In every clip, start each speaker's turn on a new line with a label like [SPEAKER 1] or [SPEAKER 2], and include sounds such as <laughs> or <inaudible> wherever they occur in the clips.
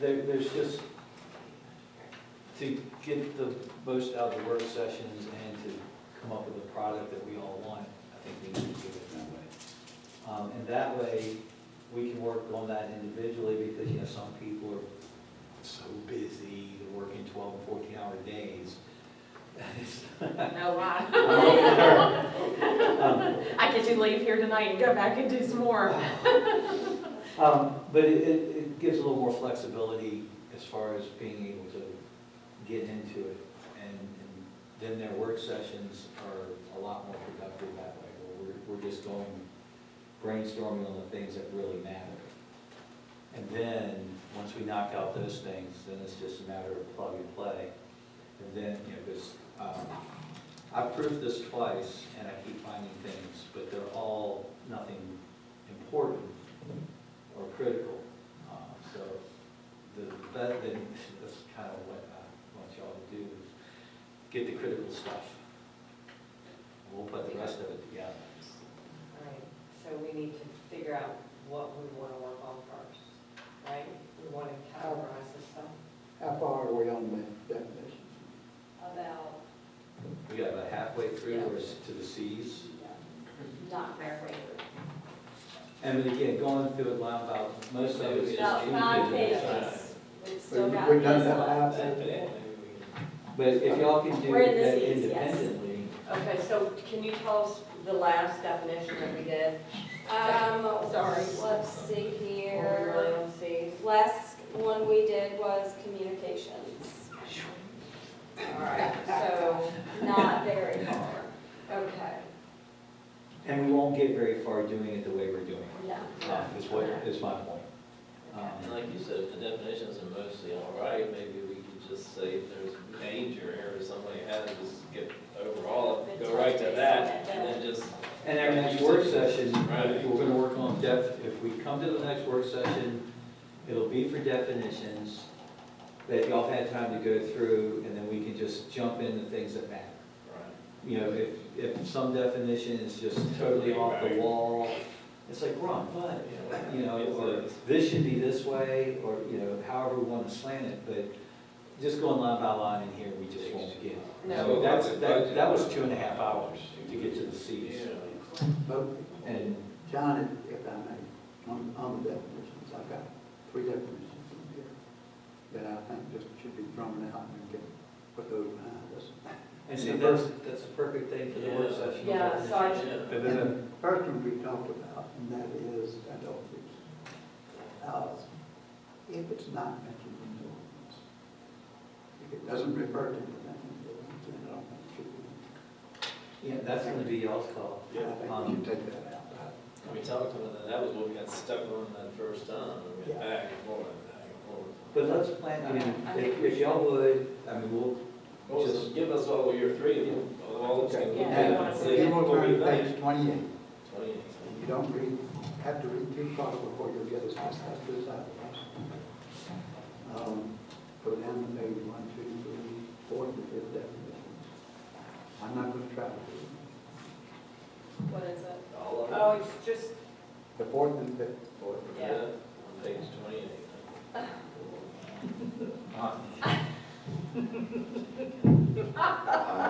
[SPEAKER 1] There, there's just, to get the most out of the work sessions and to come up with a product that we all want, I think we need to do it that way. Um, and that way, we can work on that individually, because, you know, some people are so busy, they're working twelve and fourteen hour days. <laughs>
[SPEAKER 2] No lie.
[SPEAKER 1] Um,
[SPEAKER 2] <laughs> I get to leave here tonight and go back and do some more.
[SPEAKER 1] Um, but it, it, it gives a little more flexibility as far as being able to get into it. And, and then their work sessions are a lot more productive that way, where we're, we're just going brainstorming on the things that really matter. And then, once we knock out those things, then it's just a matter of plug and play. And then, you know, because, um, I've proved this twice and I keep finding things, but they're all nothing important or critical. Um, So the, that, then, that's kind of what I want y'all to do, is get the critical stuff. We'll put the rest of it together.
[SPEAKER 3] All right, so we need to figure out what we want to work on first, right? We want to categorize this stuff.
[SPEAKER 4] How far are we on the definition?
[SPEAKER 5] about
[SPEAKER 1] We got about halfway through, we're s- to the Cs.
[SPEAKER 5] not halfway
[SPEAKER 1] And then again, going through it line by, most of it is
[SPEAKER 5] through. About five
[SPEAKER 1] individual.
[SPEAKER 5] pages. We've still got
[SPEAKER 4] We've done
[SPEAKER 5] this
[SPEAKER 4] that
[SPEAKER 5] one.
[SPEAKER 4] out.
[SPEAKER 1] But if y'all can do
[SPEAKER 5] We're in the
[SPEAKER 1] that
[SPEAKER 5] Cs, yes.
[SPEAKER 1] independently,
[SPEAKER 3] Okay, so can you tell us the last definition that we did?
[SPEAKER 5] Um,
[SPEAKER 3] Sorry.
[SPEAKER 5] Let's see
[SPEAKER 3] What we were
[SPEAKER 5] here.
[SPEAKER 3] on, see?
[SPEAKER 5] Last one we did was communications,
[SPEAKER 3] All right, so,
[SPEAKER 5] not very far,
[SPEAKER 3] okay.
[SPEAKER 1] and we won't get very far doing it the way we're doing
[SPEAKER 5] no.
[SPEAKER 1] it, um, is what, is my point.
[SPEAKER 6] And
[SPEAKER 1] Um,
[SPEAKER 6] like you said, if the definitions are mostly all right, maybe we could just say if there's danger here or somebody had to just skip overall, go right to that, and then just,
[SPEAKER 1] And our next work session,
[SPEAKER 6] Right.
[SPEAKER 1] we're gonna work on def, if we come to the next work session, it'll be for definitions that y'all had time to go through, and then we can just jump into things that matter. you know, if, if some definition is just totally off the wall, it's like, Ron,
[SPEAKER 6] you
[SPEAKER 1] what?
[SPEAKER 6] know.
[SPEAKER 1] You know,
[SPEAKER 6] it's
[SPEAKER 1] or
[SPEAKER 6] a-
[SPEAKER 1] this should be this way, or, you know, however we want to slant it, but just going line by line in here, we just won't get. So
[SPEAKER 3] No.
[SPEAKER 1] that's, that, that was two and a half hours to get to the Cs.
[SPEAKER 6] Yeah.
[SPEAKER 4] But,
[SPEAKER 1] And,
[SPEAKER 4] John, if- if I may, on, on the definitions, I've got three definitions in here that I think just should be thrown out and get, put those behind us.
[SPEAKER 1] and see, that's, that's the perfect thing for the work
[SPEAKER 6] Yeah.
[SPEAKER 1] session.
[SPEAKER 3] Yeah, so I-
[SPEAKER 6] Yeah.
[SPEAKER 1] But
[SPEAKER 4] And
[SPEAKER 1] then,
[SPEAKER 4] the first one we talked about, and that is adult use. Uh, If it's not mentioned in the ordinance, if it doesn't refer to anything in the ordinance, then I don't think it should be.
[SPEAKER 1] yeah, that's gonna be y'all's call.
[SPEAKER 4] I think we should take that out.
[SPEAKER 6] And We talked about that, that was what we got stuck on that first time, we went back and forth, back and forth.
[SPEAKER 1] But let's plan, I mean, if, if y'all would, I mean, we'll
[SPEAKER 6] Well, just give us all your three, of them, all of them.
[SPEAKER 2] Yeah.
[SPEAKER 6] and see
[SPEAKER 4] You will
[SPEAKER 6] what we
[SPEAKER 4] turn to
[SPEAKER 6] think.
[SPEAKER 4] page twenty-eight.
[SPEAKER 6] Twenty.
[SPEAKER 4] You don't read, have to read too far before you get as high as that to the side of us. Um, Go down to maybe one, two, three, four, and fifth definition. I'm not gonna try to do it.
[SPEAKER 5] What is it?
[SPEAKER 6] All of them.
[SPEAKER 3] Oh, it's just,
[SPEAKER 4] The fourth and fifth,
[SPEAKER 6] Fourth,
[SPEAKER 3] Yeah.
[SPEAKER 6] yeah, on page twenty-eight.
[SPEAKER 1] Uh,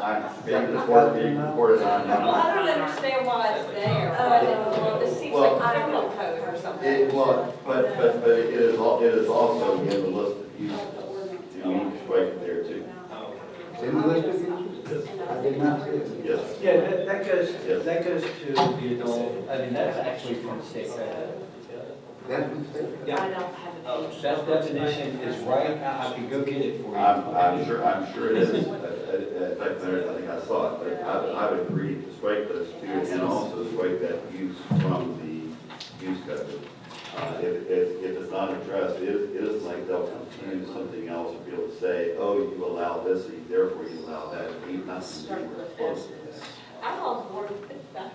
[SPEAKER 7] I think it's worth being reported on.
[SPEAKER 3] well, I
[SPEAKER 7] now.
[SPEAKER 3] don't understand why it's there.
[SPEAKER 5] Oh.
[SPEAKER 3] It seems
[SPEAKER 7] Well-
[SPEAKER 3] like criminal code or something.
[SPEAKER 7] It, well, but, but, but it is, al- it is also in the list of uses. You know, it's right there too.
[SPEAKER 6] Oh,
[SPEAKER 4] It's in the list of uses. I did not see it.
[SPEAKER 7] Yes.
[SPEAKER 1] Yeah, that, that goes,
[SPEAKER 7] Yes.
[SPEAKER 1] that goes to the adult, I mean, that's actually from state reg.
[SPEAKER 4] That's been said.
[SPEAKER 1] Yeah. Oh,
[SPEAKER 2] I don't have a page.
[SPEAKER 1] That definition is right, I can go get it for you.
[SPEAKER 7] I'm, I'm sure, I'm sure it is. Uh, In fact, there, I think I saw it, but I, would- I would agree to strike those two and also strike that use from the use code. Uh, if, if, if it's not addressed, it, it is like they'll confuse something else and be able to say, oh, you allow this, and therefore you allow that. It need not be anywhere close to that.
[SPEAKER 5] I'm on board with that.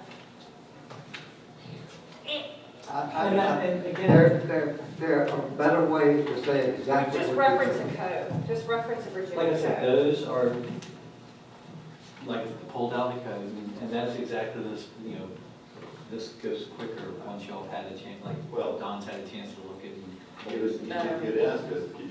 [SPEAKER 4] I,
[SPEAKER 1] And that-
[SPEAKER 4] I,
[SPEAKER 1] and again,
[SPEAKER 4] there, there, there are better ways to say exactly what
[SPEAKER 3] Just
[SPEAKER 4] you
[SPEAKER 3] reference a
[SPEAKER 4] said.
[SPEAKER 3] code, just reference a
[SPEAKER 1] like I
[SPEAKER 3] Virginia
[SPEAKER 1] said,
[SPEAKER 3] code.
[SPEAKER 1] those are, like, pulled out the code, and- and that's exactly this, you know, this goes quicker once y'all have had a chance, like, well, Don's had a chance to look at and
[SPEAKER 7] You just, you just- you'd ask us, could you